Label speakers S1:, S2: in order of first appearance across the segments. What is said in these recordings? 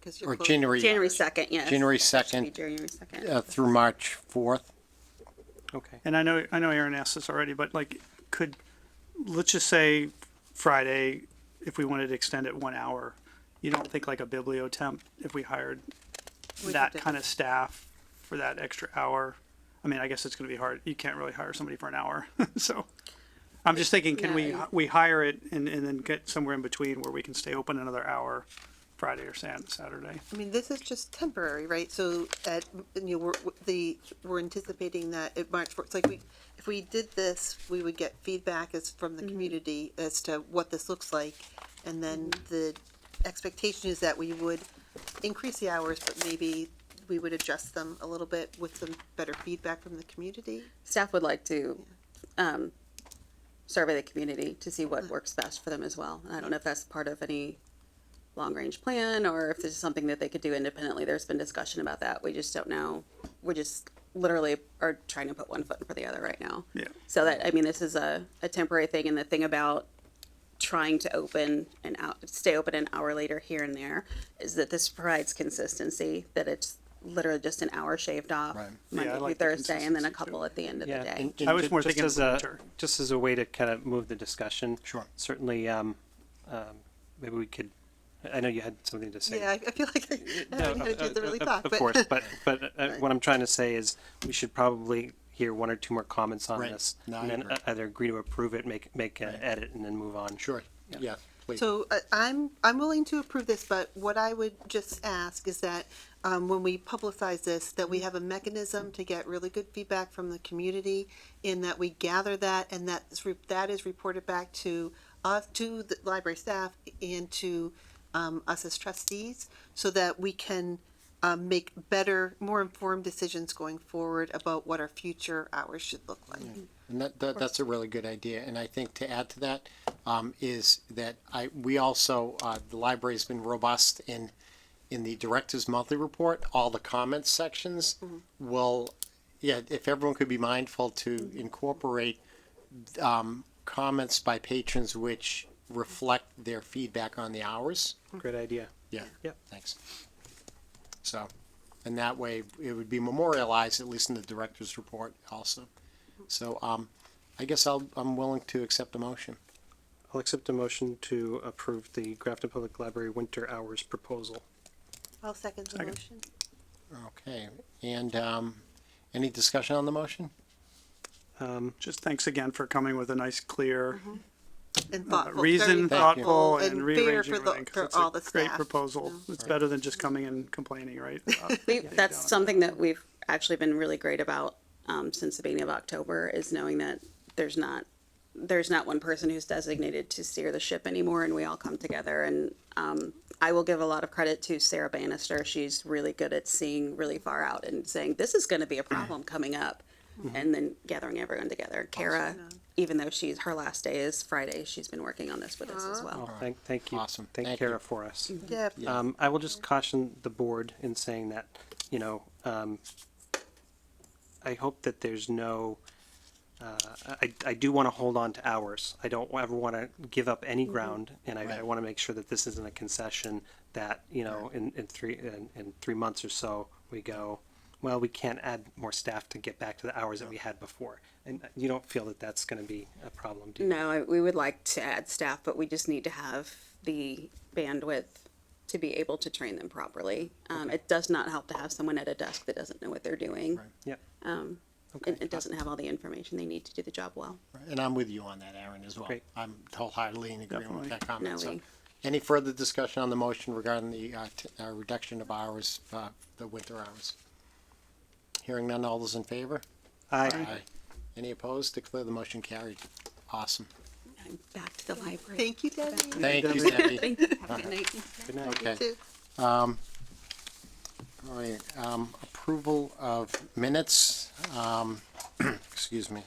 S1: Because
S2: Or
S1: you're close-
S2: January-
S1: January second, yes.
S2: January
S1: It should be
S2: 2nd.
S1: January second.
S2: uh, through March 4th. Okay.
S3: And I know, I know Aaron asked this already, but like, could, let's just say Friday, if we wanted to extend it one hour, you don't think like a biblio temp, if we hired
S1: We
S3: that
S1: could do-
S3: kind of staff for that extra hour? I mean, I guess it's gonna be hard. You can't really hire somebody for an hour, so. I'm just thinking, can we,
S1: Yeah.
S3: we hire it and, and then get somewhere in between where we can stay open another hour Friday or Sat- Saturday?
S1: I mean, this is just temporary, right? So at, you know, we're, the, we're anticipating that at March fourth, like we, if we did this, we would get feedback as, from
S4: Mm-hmm.
S1: the community as to what this looks like. And then
S4: Mm-hmm.
S1: the expectation is that we would increase the hours, but maybe we would adjust them a little bit with some better feedback from the community.
S4: Staff would like to, um, survey the community to see what works best for them as well. And I don't know if that's part of any long-range plan or if this is something that they could do independently. There's been discussion about that. We just don't know. We just literally are trying to put one foot in for the other right now.
S1: Mm-hmm.
S3: Yeah.
S4: So that, I mean, this is a, a temporary thing and the thing about trying to open and out, stay open an hour later here and there is that this provides consistency, that it's literally just an hour shaved off
S2: Right.
S3: Yeah, I
S4: Monday through
S3: like the
S4: Thursday and then a
S3: consistency, too.
S4: couple at the end of the day.
S2: And-
S3: I
S2: and
S3: was
S2: ju-
S3: more
S5: just
S3: thinking
S5: as a
S3: winter.
S5: just as a way to kind of move the discussion.
S2: Sure.
S5: Certainly, um, um, maybe we could. I know you had something to say.
S1: Yeah, I I feel like I
S5: No,
S1: haven't had a
S5: of-
S1: chance to
S5: of-
S1: really
S5: of-
S1: talk,
S5: Of
S1: but.
S5: course, but but uh, what I'm trying to say is we should probably hear one or two more comments on
S2: Right.
S5: this,
S2: No, I
S5: and then
S2: agree.
S5: uh, either agree to approve it, make make an edit, and then move on.
S2: Sure, yeah, please.
S1: So uh, I'm, I'm willing to approve this, but what I would just ask is that um, when we publicize this, that we have a mechanism to get really good feedback from the community in that we gather that and that's, re- that is reported back to us, to the library staff and to um, us as trustees so that we can um, make better, more informed decisions going forward about what our future hours should look like.
S2: And that, that, that's a really good idea. And I think to add to that, um, is that I, we also, uh, the library's been robust in, in the director's monthly report, all the comments sections will, yeah, if everyone could be mindful to incorporate, um, comments by patrons which reflect their feedback on the hours.
S5: Great idea.
S2: Yeah.
S5: Yep.
S2: Thanks. So, and that way it would be memorialized, at least in the director's report also. So, um, I guess I'll, I'm willing to accept a motion.
S5: I'll accept a motion to approve the Grafton Public Library winter hours proposal.
S1: I'll second the
S3: Second.
S1: motion.
S2: Okay, and, um, any discussion on the motion?
S5: Um,
S3: Just thanks again for coming with a nice, clear,
S1: And Mm-hmm.
S3: uh,
S1: thoughtful, very
S3: reason, thoughtful, and
S1: fair
S3: rearranging
S1: for the-
S3: everything. 'cause
S1: for
S3: it's a
S1: all the
S3: Great
S1: staff,
S3: proposal.
S1: you
S3: It's better than just coming and complaining, right? Uh,
S4: We, that's something that we've actually been really great about um, since the beginning of October is knowing that there's not there's not one person who's designated to steer the ship anymore, and we all come together. And um, I will give a lot of credit to Sarah Bannister. She's really good at seeing really far out and saying this is going to be a problem coming up, and then gathering everyone together. Kara, even though she's her last day is Friday, she's been working on this with us as well.
S5: well, thank thank you.
S2: Awesome.
S5: Thank,
S2: Thank
S5: Kara
S2: you.
S5: for us.
S1: Yeah,
S5: Um, I will just caution the board in saying that, you know, um, I hope that there's no, uh, I, I do want to hold on to hours. I don't ever want to give up any ground, and I, I
S2: Right.
S5: want to make sure that this isn't a concession that, you know, in, in three, in, in three months or so, we go, well, we can't add more staff to get back to the hours that we had before. And you don't feel that that's going to be a problem, do you?
S4: No, I- we would like to add staff, but we just need to have the bandwidth to be able to train them properly. Um, it does not help to have someone at a desk that doesn't know what they're doing.
S5: Yep.
S4: Um,
S5: Okay.
S4: and it doesn't have all the information they need to do the job well.
S2: And I'm with you on that, Aaron, as well.
S5: Great.
S2: I'm wholeheartedly in agreement with that comment.
S4: No,
S2: So,
S4: we-
S2: Any further discussion on the motion regarding the, uh, t- uh, reduction of hours, uh, the winter hours? Hearing none, all those in favor?
S5: I,
S2: Any opposed? Declare the motion carried. Awesome.
S4: I'm back to the library.
S1: Thank you, Debbie.
S2: Thank you, Debbie.
S4: Thank you. Have a good night.
S5: good night.
S2: Okay.
S1: Too.
S2: All right, um, approval of minutes, um, excuse me.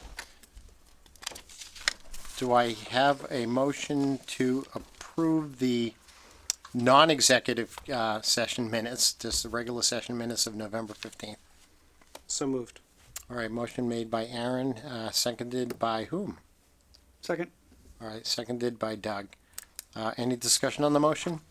S2: Do I have a motion to approve the non-executive, uh, session minutes, just the regular session minutes of November fifteenth?
S5: So moved.
S2: All right, motion made by Aaron, uh, seconded by whom?
S3: Second,
S2: All right, seconded by Doug. Uh, any discussion on the motion?